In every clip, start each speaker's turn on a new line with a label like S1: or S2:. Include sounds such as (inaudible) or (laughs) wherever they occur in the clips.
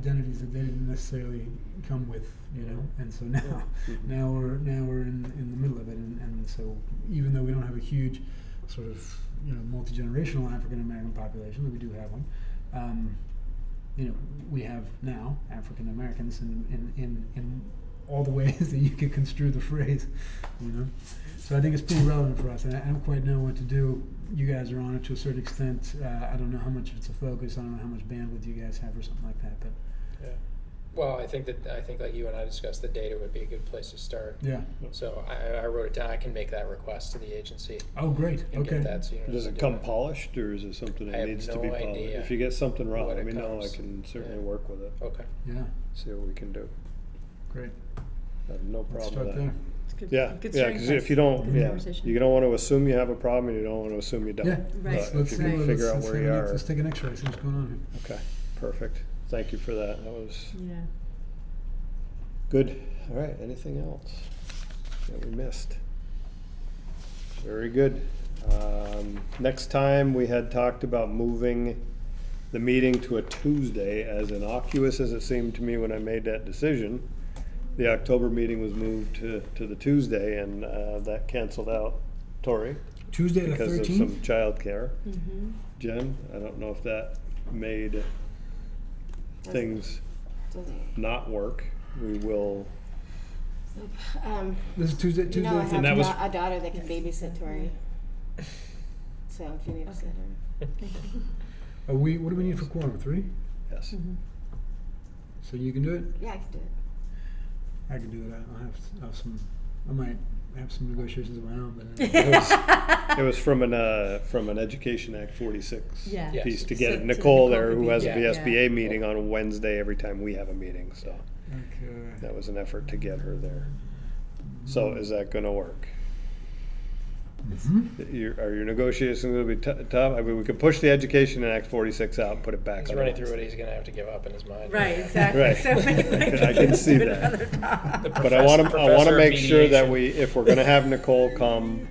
S1: identities that they didn't necessarily come with, you know. And so now,
S2: Yeah. Mhm.
S1: now we're now we're in, in the middle of it, and, and so even though we don't have a huge sort of you know multi generational African American population, though we do have one. Um, you know, we have now African Americans in, in, in, in all the ways (laughs) that you could construe the phrase, you know. So I think it's pretty relevant for us, and I, I don't quite know what to do. You guys are on it to a certain extent. Uh, I don't know how much it's a focus. I don't know how much bandwidth you guys have or something like that. But
S3: Yeah. Well, I think that I think like you and I discussed, the data would be a good place to start.
S1: yeah.
S3: So I, I wrote it down. I can make that request to the agency
S1: Oh, great.
S3: and
S1: Okay.
S3: get that. So you don't
S2: Does
S3: have
S2: it
S3: to do
S2: come polished, or is it something
S3: I
S2: that
S3: have
S2: needs to
S3: no
S2: be polished?
S3: idea
S2: If you get something wrong,
S3: when
S2: let
S3: it
S2: me know, I
S3: comes.
S2: can certainly
S3: Yeah.
S2: work with it,
S3: Okay.
S1: Yeah.
S2: see what we can do,
S1: Great.
S2: I have no
S1: Let's
S2: problem
S1: start
S2: with
S1: there.
S2: that.
S4: It's good-
S2: Yeah,
S4: good
S2: yeah,
S4: starting
S2: cause if
S4: place.
S2: you don't,
S1: Mhm.
S2: yeah,
S4: Conversation.
S2: you don't wanna assume you have a problem, and you don't wanna assume you don't.
S1: Yeah.
S4: Right.
S1: Let's,
S2: But
S1: let's,
S2: if you can
S1: let's,
S2: figure out
S1: let's
S2: where
S1: have
S2: you
S1: an-
S2: are,
S1: let's take an X-ray. See what's going on here.
S2: okay, perfect, thank you for that, that was
S4: Yeah.
S2: good, alright, anything else that we missed? Very good, um, next time, we had talked about moving the meeting to a Tuesday, as innocuous as it seemed to me when I made that decision. The October meeting was moved to, to the Tuesday, and, uh, that canceled out Tori
S1: Tuesday the
S2: because of some
S1: thirteenth.
S2: childcare.
S4: Mm-hmm.
S2: Jen, I don't know if that made things not work. We will,
S5: Um,
S1: This is Tuesday. Tuesday.
S5: you know,
S1: the
S5: I have
S1: 13th.
S2: that
S5: a,
S2: was-
S5: da- a daughter that can babysit Tori. So if you need a
S4: Okay.
S5: sitter.
S1: Are we? What do we need for quorum? Three.
S2: yes.
S1: Mm-hmm. So you can do it.
S5: Yeah, I can do it.
S1: I can do it. I- I'll have, s- I'll have some. I might have some negotiations of my own, but. uh,
S2: It (laughs) was,
S3: (laughs)
S2: it was from an, uh, from an Education Act forty-six
S4: Yeah.
S3: Yes.
S2: piece to
S4: So
S2: get
S4: to
S2: Nicole
S4: Nicole
S2: there, who
S4: to
S2: has a
S3: be- Yeah.
S2: VSBA meeting on Wednesday every time we have a meeting, so
S1: Okay. Mm-hmm.
S2: that was an effort to get her there. So is that gonna work?
S1: Mhm.
S2: Your, are your negotiations gonna be tou- tough? I mean, we could push the Education Act forty-six out and put it back
S3: He's
S2: on
S3: running through what
S2: Wednesday.
S3: he's going to have to give up in his mind. (laughs)
S4: Right, exactly.
S5: (laughs)
S2: Right. (laughs)
S4: So (laughs) maybe
S2: I
S4: we
S2: can- I can see
S4: do it
S2: that. (laughs)
S4: another time.
S3: The
S2: But I want to,
S3: Professor-
S2: I want to
S3: professor
S2: make sure that
S3: mediation.
S2: we, if we're going to have Nicole come,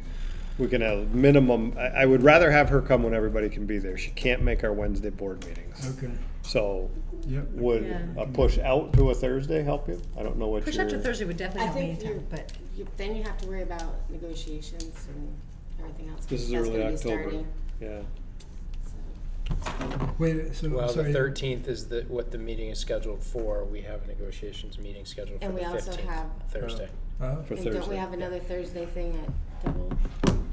S2: we can have minimum, I, I would rather have her come when everybody can be there. She can't make our Wednesday board meetings.
S1: Okay.
S2: So
S1: Yep.
S2: would
S4: Yeah.
S2: a push out to a Thursday help you? I don't know what
S4: Push up to
S2: your,
S4: Thursday would definitely
S5: I
S4: help me
S5: think
S4: anytime,
S5: you-
S4: but
S5: You, then you have to worry about negotiations and everything else. 'cause
S2: This is
S5: that's
S2: early
S5: gonna be
S2: October.
S5: starting,
S2: yeah.
S5: so.
S1: Wait, so,
S3: Well,
S1: sorry.
S3: the thirteenth is the, what the meeting is scheduled for. We have a negotiations meeting scheduled for
S5: And
S3: the
S5: we also
S3: fifteenth,
S5: have-
S3: Thursday.
S1: Uh,
S2: For
S5: And don't
S2: Thursday.
S5: we have another Thursday thing at double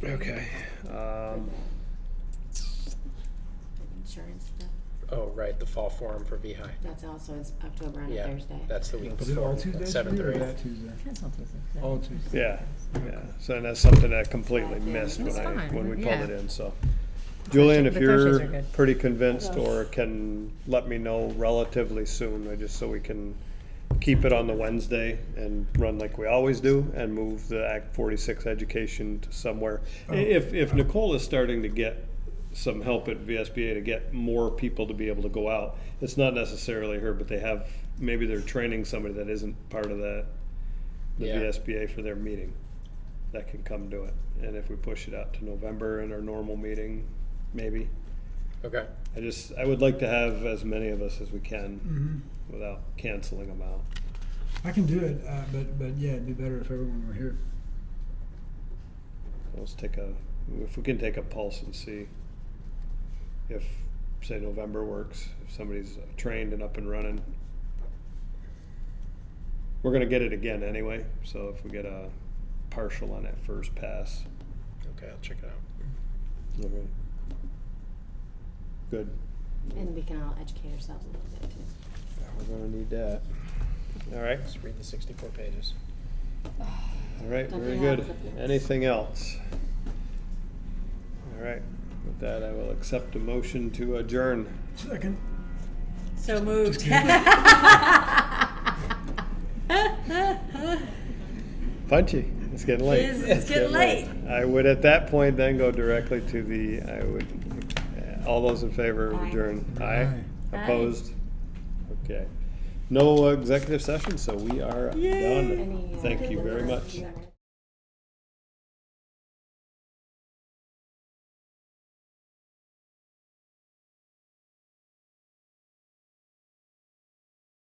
S2: Okay. Um,
S5: insurance stuff?
S3: Oh, right, the fall forum for VHI.
S5: That's also, it's October on a
S3: Yeah,
S5: Thursday.
S3: that's the week
S1: is it all
S3: before,
S1: Tuesdays?
S3: seventh
S1: for you
S3: or
S1: or
S3: eighth.
S1: that Tuesday?
S4: cancel Tuesday.
S2: Oh,
S1: All Tuesday.
S2: yeah, yeah. So that's something that I completely
S5: Yeah.
S2: missed when
S4: That's
S2: I,
S4: fine.
S2: when we pulled
S4: Yeah.
S2: it in, so. Julian, if
S4: the Thursdays
S2: you're
S4: are good.
S2: pretty convinced or can let me know relatively soon, uh, just so we can keep it on the Wednesday and run like we always do and move the Act forty-six education to somewhere. I- If, if Nicole is starting to get some help at VSBA to get more people to be able to go out, it's not necessarily her, but they have, maybe they're training somebody that isn't part of that, the
S3: Yeah.
S2: VSBA for their meeting that can come do it. And if we push it out to November in our normal meeting, maybe.
S3: Okay,
S2: I just, I would like to have as many of us as we can
S1: hmm
S2: without canceling them out.
S1: I can do it, uh, but but yeah, it'd be better if everyone were here.
S2: Let's take a, if we can take a pulse and see if, say, November works, if somebody's trained and up and running. We're gonna get it again anyway, so if we get a partial on that first pass,
S3: okay, I'll check it out.
S2: all right. Good.
S5: And we can all educate ourselves a little bit too.
S2: We're gonna need that. All right,
S3: Let's read the sixty-four pages.
S2: all right,
S5: Don't
S2: very
S5: they have
S2: good.
S5: the flips?
S2: Anything else? All right, with that, I will accept a motion to adjourn.
S1: Second.
S4: So moved.
S2: (laughs)
S4: (laughs)
S2: Punchy, it's getting late.
S4: It is, it's getting late.
S2: I would at that point then go directly to the, I would, uh, all those in favor of
S5: Aye.
S2: adjourn?
S1: Aye.
S4: Aye.
S2: Opposed? Okay. No executive session, so we are done.
S4: Yay. uh,
S5: Any, uh,
S2: Thank you very
S5: deliverance
S2: much.
S5: you ever-